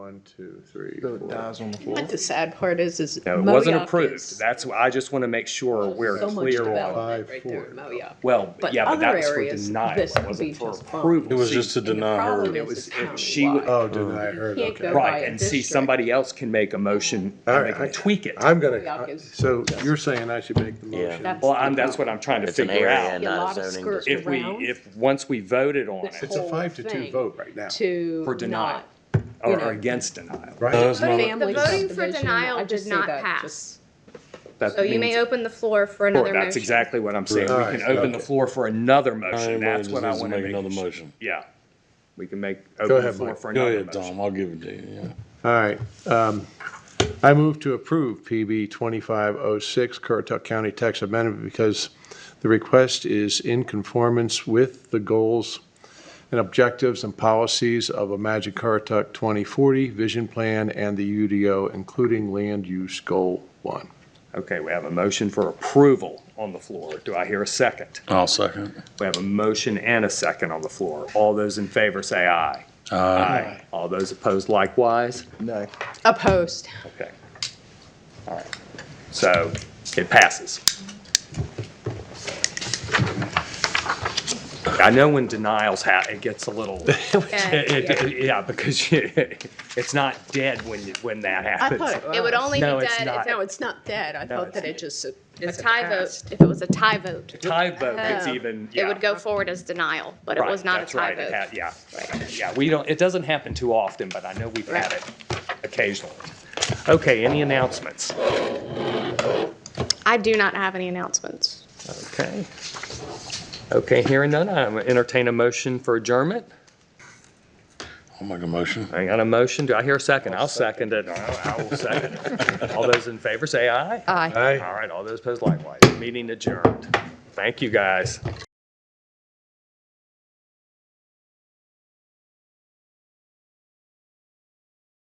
one, two, three, So four. it dies on the floor. But the sad part is, is. No, it wasn't Moayoc approved. is That's, why- I just want to make sure we're So much clear on. development right there in Five, Moayoc. Well, But yeah, but that other was for areas, denial. this It wasn't beach for is fine. approval. It was See, just to And the deny problem her. is, It was- is it- she- uh, countywide. Oh, deny her, You can't okay. go- Right, by and see, district. somebody else can make a motion All and they right, can I- tweak it. I'm gonna, Yuck is- so you're saying I should make the Yeah. motion? That's- Well, I'm, that's what I'm trying to It's an figure area out. and A not lot a of zoning skirts district. If we, around if, once we voted on This it, It's a five to two thing vote right now, to. for denial, not- or you or know. against denial. No, right? it's not. Family The voting for subdivision, denial I just did say not that pass. just- That So you may means- open the floor for Sure, another That's motion. exactly what I'm saying. Right. We can open the Okay. floor for another motion. Everybody That's just what I needs to want to make make. another motion. Yeah. We can make, open the ahead, floor Mike. for Go another ahead, motion. Tom, I'll give it to you, yeah. All right, um, I move to approve PB twenty-five oh six, Currituck County Tax Amendment, because the request is in conformance with the goals and objectives and policies of a Magic Currituck twenty forty vision plan and the UDO, including land use goal one. Okay, we have a motion for approval on the floor. Do I hear a second? I'll second. We have a motion and a second on the floor. All those in favor say aye. Aye. All those opposed likewise? No. Opposed. Okay. All right. So it passes. I know when denials ha, it gets a little, Okay. It- it- Yeah, because you- it's not dead when you, when that I happens. thought it was. It would only be No, it's dead not. if it No, was it's not dead. I thought it's- that it just. a tie vote, if it was a tie vote. Tie vote, it's even, yeah. Uh, It would go forward as denial, but it Right, was not a that's right, tie it vote. had- Yeah, yeah, we don't, it doesn't happen too often, but I know we've had it occasionally. Okay, any announcements? I do not have any announcements. Okay. Okay, hearing none, I entertain a motion for adjournment. I'll make a motion. I got a motion, do I hear a second? I'll second it, I I will second it. All those in favor say aye. Aye. All right, all those opposed likewise. Meeting adjourned. Thank you, guys.